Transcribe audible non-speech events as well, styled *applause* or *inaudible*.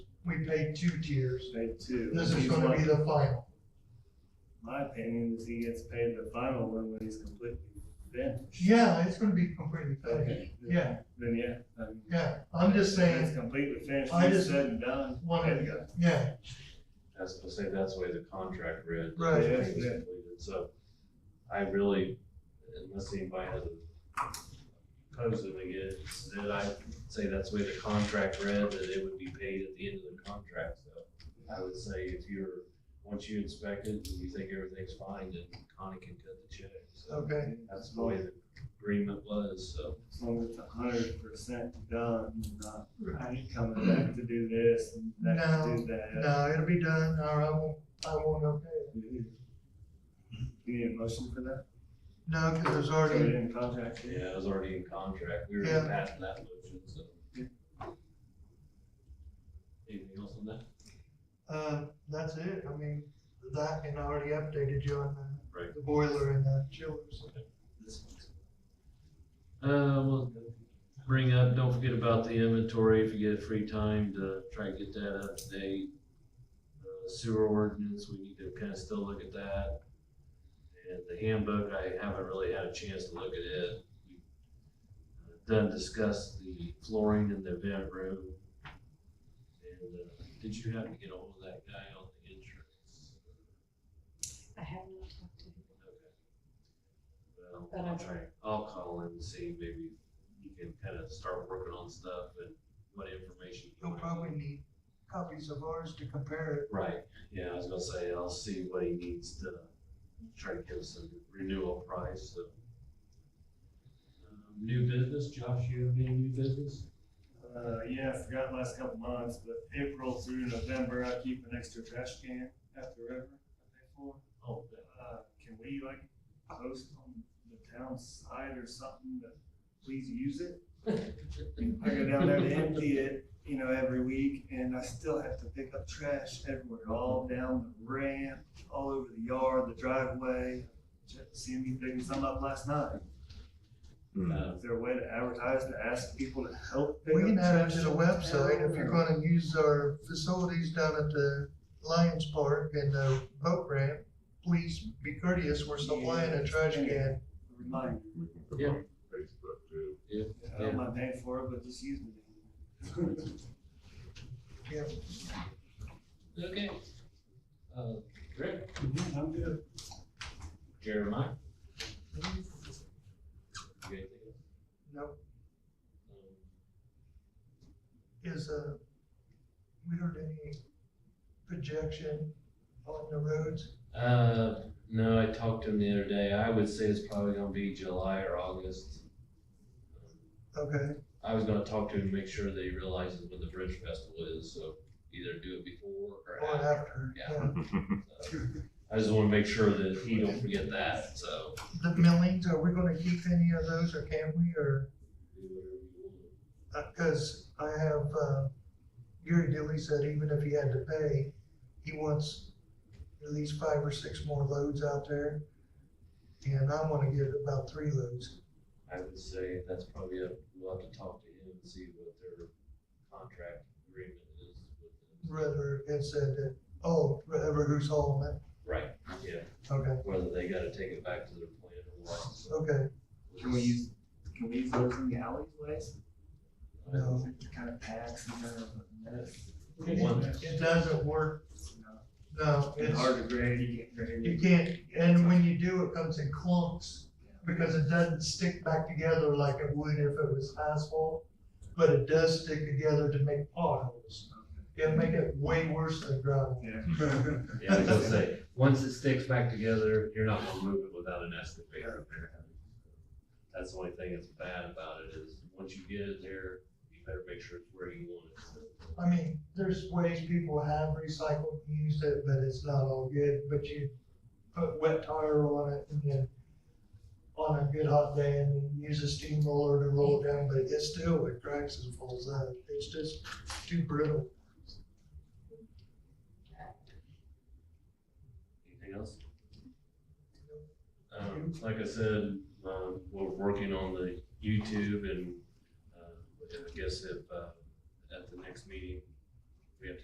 we paid two tiers. Paid two. This is He's gonna be lucky. the final. My opinion is he gets paid the final one when he's completely finished. Yeah, it's gonna be completely finished. Yeah, Then, yeah. I mean, yeah. I'm just when It's saying, completely finished, I he's just said and done. one of There you the, go. yeah, As I say, that's the way the contract read. Right. the thing Yeah, was yeah. completed. So I really, unless anybody has opposed it again, then I say that's the way the contract read, that it would be paid at the end of the contract. So I would say if you're, once you inspect it and you think everything's fine, then Connie can cut the check. So okay, that's the way the agreement was, so. As long as it's a hundred percent done, not Right. coming back to do this and back to do that. no, it'll be done, or I won't, I won't okay. it. You need a motion for that? No, cause there's So we already, didn't contract it? Yeah, it was already in contract. We were Yeah. past that motion, so. Anything else on that? uh, that's it, I mean, that, and I already updated you on the- Right. the boiler and the chillers. This one's- Uh, we'll bring up, don't forget about the inventory if you get free time to try and get that up to date. Uh, Sewer ordinance, we need to kind of still look at that. And the handbook, I haven't really had a chance to look at it. We've Done discussed the flooring in the event room. And, uh, did you happen to get ahold of that guy on the insurance? I have not talked to him. Well, But I'll I'll- try, I'll call and see, maybe you can kind of start working on stuff and what information. you You'll might- probably need copies of ours to compare Right, yeah, I was gonna say, I'll see what he needs to try to give us a renewal price, so. Um, New business, Josh, you have any new business? Uh, yeah, I forgot last couple months, but April through November, I keep an extra trash can at the river. I pay for. Oh, yeah. Uh, can we like post on the town side or something that please use it? I go down there to empty it, you know, every week and I still have to pick up trash everywhere, all down the ramp, all over the yard, the driveway. Just Seeing me picking some up last night. Uh, Is there a way to advertise to ask people to help pick We up can add it trash? to the website if you're Or- gonna use our facilities down at the Lions Park and the boat ramp. Please be courteous, we're supplying a trash can. Remind, We can put it Yeah. on Facebook too. I don't mind paying for it, but just use it. Okay. Uh, Greg, Mm-hmm, I'm good. Mm-hmm. Jeremiah? You got anything else? No, Um, is uh we heard any projection on the roads? Uh, no, I talked to him the other day. I would say it's probably gonna be July or August. Okay, I was gonna talk to him, make sure that he realizes when the Bridge Festival is, so either do it before or or after. after, Yeah. yeah. So, I just wanna make sure that he don't forget that, so. The millings, are we gonna keep any of those or can we, or, do whatever you want. uh 'cause cause I have, uh, Gary Dilly said even if he had to pay, he wants at least five or six more loads out there. And I wanna get about three loads. I would say that's probably, a- we'll have to talk to him and see what their contract agreement is with them. Rather, it said that, oh, whoever who's hauling it, Right, yeah, okay, whether they gotta take it back to their plant or what. so. okay, Can we use, can we use those in the alleyways? no. It kind of packs and kind of a mess. One. It doesn't work, you know? no, It's it's. hard to grade, you can't grade. You can't, and when you do, it comes in clumps, because it doesn't stick back together like it would if it was asphalt, but it does stick together to make potholes. It'll make it way worse than gravel. *laughs* Yeah. Yeah, I was gonna say, once it sticks back together, you're not gonna move it without an excavator. That's the only thing that's bad about it is, once you get it there, you better make sure it's where you want it. I mean, there's ways people have recycled, and used it, but it's not all good, but you put wet tire on it and then on a good hot day and then use a steamroller to roll it down, but it still, it cracks and falls out. It's just too brittle. Anything else? Um, like I said, um, we're working on the YouTube and, uh, I guess if, uh, at the next meeting,